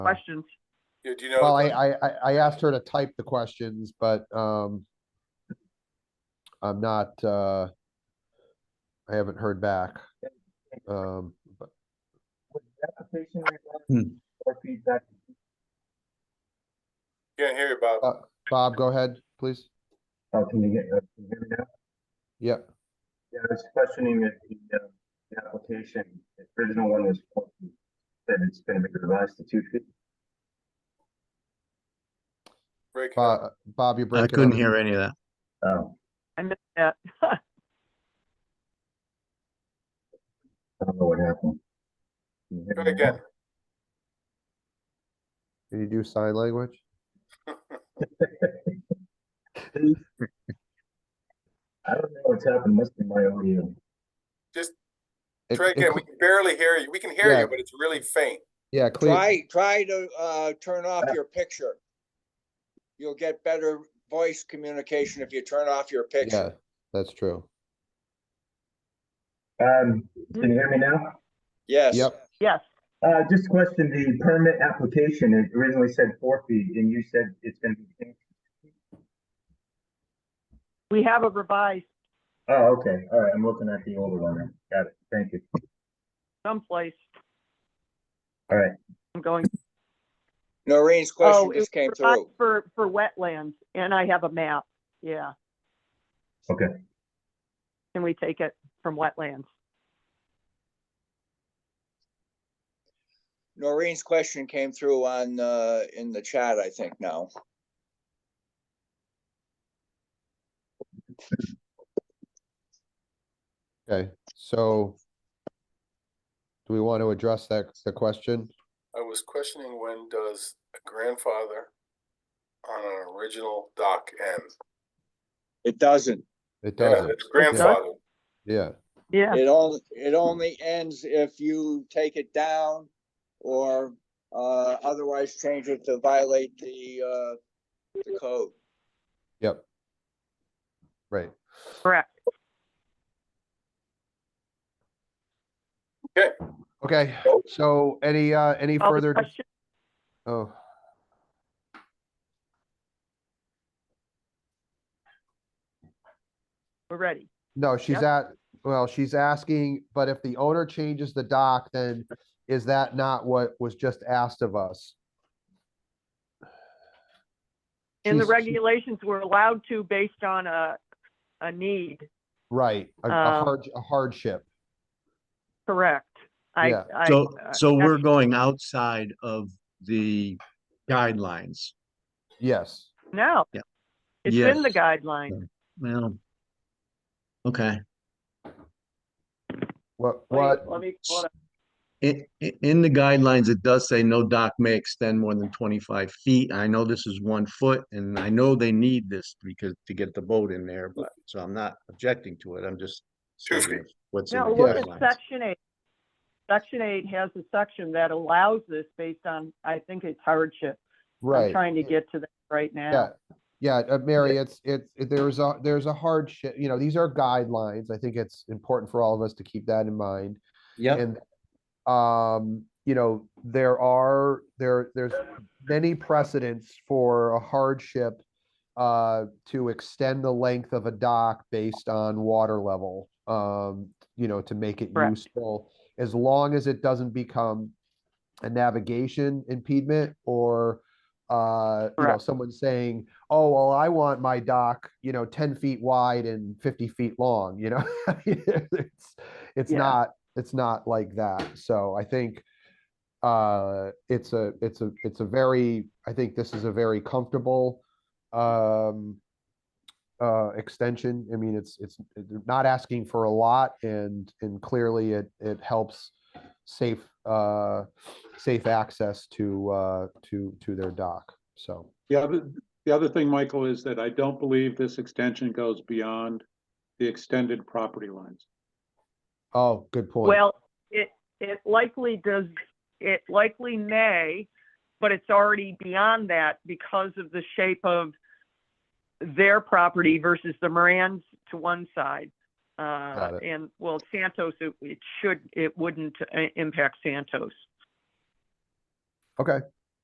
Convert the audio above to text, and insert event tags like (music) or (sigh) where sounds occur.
Uh, questions. Yeah, do you know? Well, I, I, I- I asked her to type the questions, but, um, I'm not, uh, I haven't heard back. Um, but Was the application Hmm. regarding or feedback? Can't hear you, Bob. Bob, go ahead, please. Oh, can you get, uh, can you hear me now? Yeah, Yeah, I was questioning if the, uh, the application, the original one was four feet, that it's gonna be revised to two feet. Breaking up. Bob, Bob, you're breaking. I up. couldn't hear any of that. Oh, I missed that. (laughs) I don't know what happened. Can you hear Try me now? again. Can you do sign language? I don't know what's happened, must be my audio. It- Try it again. cl- We can barely hear you. We can hear Yeah. you, but it's really faint. Yeah, clear, Try, try to, uh, turn off your picture. You'll get better voice communication if you turn off your yeah, picture. that's true. Um, can you hear me now? Yes. Yep, Yes, Uh, just question the permit application, it originally said four feet, and you said it's gonna be. we have a revised Oh, okay, all right, I'm looking at the older one, then. got it, thank you, someplace. all right. I'm going, Noreen's oh, question it just came was through. revised for, for wetlands, and I have a map, yeah. Okay. Can we take it from wetlands? Noreen's question came through on, uh, in the chat, I think now. okay, so do we want to address that, the question? I was questioning when does a grandfather on an original dock end? It doesn't. It Yeah, doesn't, it's grandfather. yeah, Yeah, It only, it only ends if you take it down or, uh, otherwise change it to violate the, uh, the code. yep. Right, correct. okay, so any, uh, any All the further, dis- questions- oh. We're ready. No, she's Yep. at, well, she's asking, but if the owner changes the dock, then is that not what was just asked of us? In the She's- she- regulations, we're allowed to based on a, a need, Right, a- a Um, hard, a hardship. correct? I, Yeah. I. So, uh, so we're actually, going outside of the guidelines. Yes, No. Yeah. It's Yes. in the guidelines. Well. Okay, what, Wait, what, Let me pull it up. in, in the guidelines, it does say no dock may extend more than twenty-five feet. I know this is one foot and I know they need this because to get the boat in there, but, so I'm not objecting to it. I'm just. Two stating feet. What's in the No, look at guidelines. section eight. Section eight has a section that allows this based on, I think it's hardship. I'm right? trying to get to that right Yeah, now. yeah, uh, Mary, it's, it's, it- there's a, there's a hardship, you know, these are guidelines. I think it's important for all of us to keep that in mind. Yep, And, um, you know, there are, there, there's many precedents for a hardship uh, to extend the length of a dock based on water level, um, you know, to make it Correct. useful, as long as it doesn't become a navigation impediment or, uh, you know, Correct. someone saying, oh, well, I want my dock, you know, ten feet wide and fifty feet long, you know? (laughs) It's, it's Yeah. not, it's not like that. So I think uh, it's a, it's a, it's a very, I think this is a very comfortable um, uh, extension. I mean, it's, it's they're not asking for a lot and, and clearly it, it helps safe, uh, safe access to, uh, to, to their dock. So, The other, the other thing, Michael, is that I don't believe this extension goes beyond the extended property lines. oh, good point. Well, it, it likely does, it likely may, but it's already beyond that because of the shape of their property versus the Morans to one side. Uh, Got it. and, well, Santos, it, it should, it wouldn't uh, impact Santos. Okay,